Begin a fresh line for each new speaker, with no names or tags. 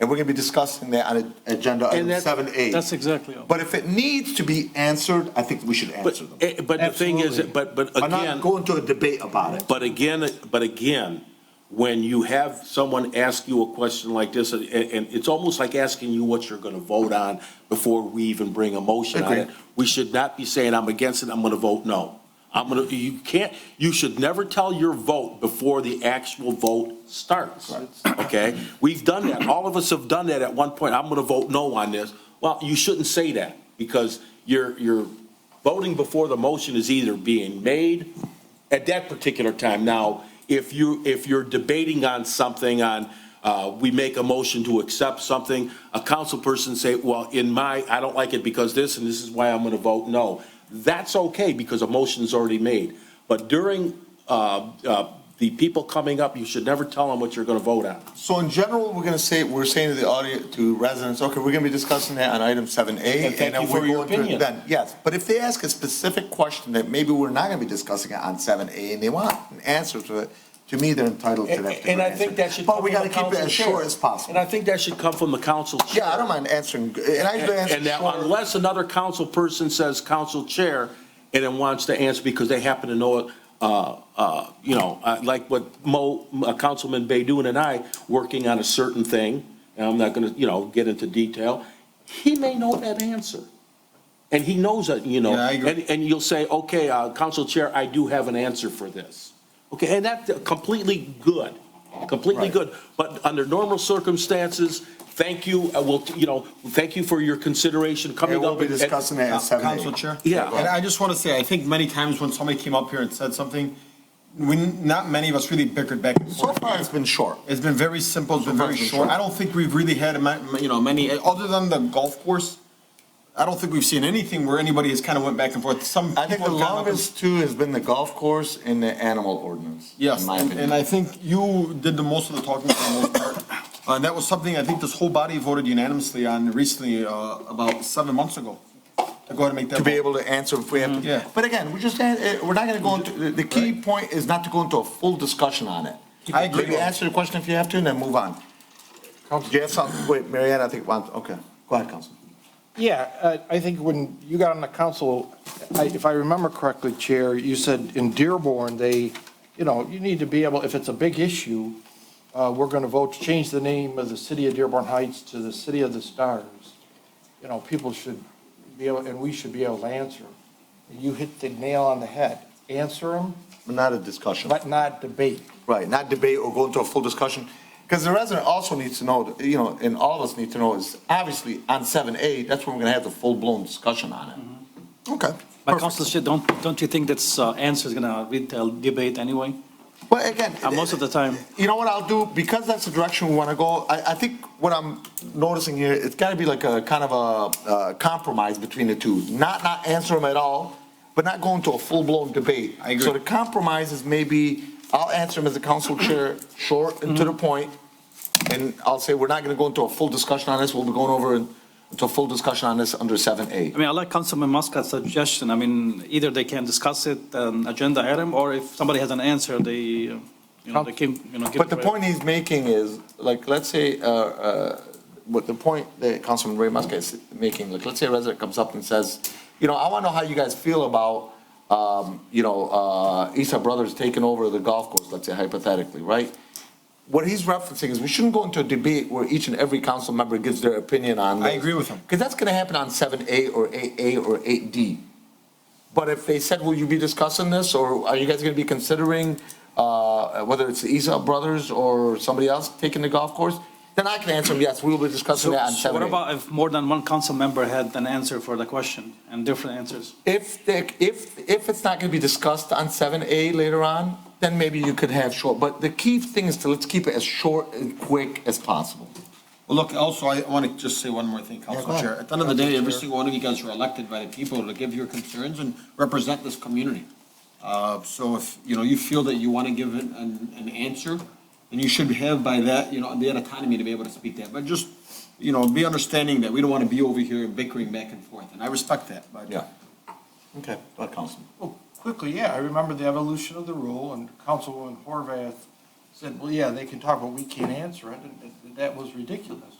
And we're going to be discussing that on
Agenda
And
item
that-
seven A.
That's exactly. all.
But if it needs to be answered, I think we should
But,
answer them.
eh, but the thing is,
Absolutely.
but, but
But not
again,
go into a debate about it.
but again, but again, when you have someone ask you a question like this, and, and it's almost like asking you what you're gonna vote on before we even bring a motion on it.
Agreed.
We should not be saying, I'm against it, I'm gonna vote no. I'm gonna, you can't, you should never tell your vote before the actual vote starts. Okay? We've done that. All of us have done that at one point. I'm gonna vote no on this. Well, you shouldn't say that because you're, you're voting before the motion is either being made at that particular time. Now, if you, if you're debating on something, on, uh, we make a motion to accept something, a council person say, well, in my, I don't like it because this, and this is why I'm going to vote no. That's okay, because a motion's already made. But during uh, uh, the people coming up, you should never tell them what you're going to vote on.
So in general, we're going to say, we're saying to the audience, to residents, okay, we're going to be discussing that on item seven A.
And thank you for your opinion.
Then, yes, but if they ask a specific question that maybe we're not going to be discussing it on seven A and they want an answer to it, to me, they're entitled to that.
And and
particular
I think
answer.
that should come
But
from
we
the
gotta keep it
council
as
chair.
short as possible.
And I think that should come from the council chair.
Yeah, I don't mind answering, and I usually answer
And that
short.
unless another council person says council chair and then wants to answer because they happen to know it, uh, uh, you know, uh, like what Mo, uh, Councilman Baydun and I, working on a certain thing, and I'm not gonna, you know, get into detail, he may know that answer. And he knows that, you know.
Yeah, I agree.
And, and you'll say, okay, uh, council chair, I do have an answer for this. Okay, and that's completely good, completely
Right.
good. But under normal circumstances, thank you, I will, you know, thank you for your consideration coming
And
up.
we'll be
at- at-
discussing that at seven A.
Council Chair?
Yeah.
And I just want to say, I think many times when somebody came up here and said something, we, not many of us really bickered back and
So
forth.
far, it's been short.
It's been very simple, it's been very
Sometimes it's
short.
short.
I don't think we've really had, a ma- you know, many, other than the golf course, I don't think we've seen anything where anybody has kind of went back and forth. Some
I think the
people have gone up and-
longest too has been the golf course and the animal ordinance.
Yes,
in my
and
opinion.
and I think you did the most of the talking for the most part. Uh, And that was something I think this whole body voted unanimously on recently, uh, about seven months ago. To go ahead and make that.
to be
vote.
able to answer if we have to.
Mm, Yeah.
But again, we're just, eh, we're not gonna go into, the- the key point is not to go into a full discussion on it.
I agree.
Maybe answer the question if you have to, and then move on. Do you have something, wait, Marianne, I think, wants- okay, go ahead, Council.
Yeah, uh, I think when you got on the council, I- if I remember correctly, Chair, you said in Dearborn, they, you know, you need to be able, if it's a big issue, uh, we're going to vote to change the name of the city of Dearborn Heights to the City of the Stars. You know, people should be able, and we should be able to answer. You hit the nail on the head. Answer them,
Not a discussion,
but not debate.
right, not debate or go into a full discussion. Because the resident also needs to know, that, you know, and all of us need to know is, obviously, on seven A, that's when we're gonna have the full-blown discussion on it.
Okay.
But Council Chair, don't, don't you think that's, uh, answer is gonna read the debate anyway?
Well, again.
Uh, most of the time.
You know what I'll do? Because that's the direction we want to go, I, I think what I'm noticing here, it's got to be like a kind of a, uh compromise between the two. Not, not answer them at all, but not go into a full-blown debate.
I agree.
So the compromise is maybe, I'll answer them as a council chair, short and to
Mm-hmm.
the point, And I'll say, we're not going to go into a full discussion on this. We'll be going over in- into a full discussion on this under seven A.
I mean, I like Councilman Muscat's suggestion. I mean, either they can discuss it, an agenda item, or if somebody has an answer, they, uh, you know, they can, you know. give
But the
it-
point he's making is, like, let's say, uh, uh, what the point that Councilman Ray Muscat is making, like, let's say a resident comes up and says, you know, I want to know how you guys feel about, um, you know, uh, Isa Brothers taking over the golf course, let's say hypothetically, right? What he's referencing is we shouldn't go into a debate where each and every council member gives their opinion on.
I agree with him.
Because that's going to happen on seven A or eight A or eight D. But if they said, will you be discussing this, or are you guys gonna be considering, uh, whether it's the Isa Brothers or somebody else taking the golf course? Then I can answer them, yes, we will be discussing
So
that on
so what
Saturday.
about if more than one council member had an answer for the question and different answers?
If, the- if, if it's not gonna be discussed on seven A later on, then maybe you could have short, but the key thing is to, let's keep it as short and quick as possible.
Well, look, also, I want to just say one more thing,
go
Council
ahead.
Chair. At the end of the day, every single one of you guys are elected by the people to give your concerns and represent this community. Uh, So if, you know, you feel that you want to give an, an an answer, then you should have by that, you know, the autonomy to be able to speak that. But just, you know, be understanding that we don't want to be over here bickering back and forth, and I respect that, but.
Yeah. Okay, that Councilman.
Well, quickly, yeah, I remember the evolution of the rule, and Councilwoman Horvath said, well, yeah, they can talk, but we can't answer it, and that was ridiculous.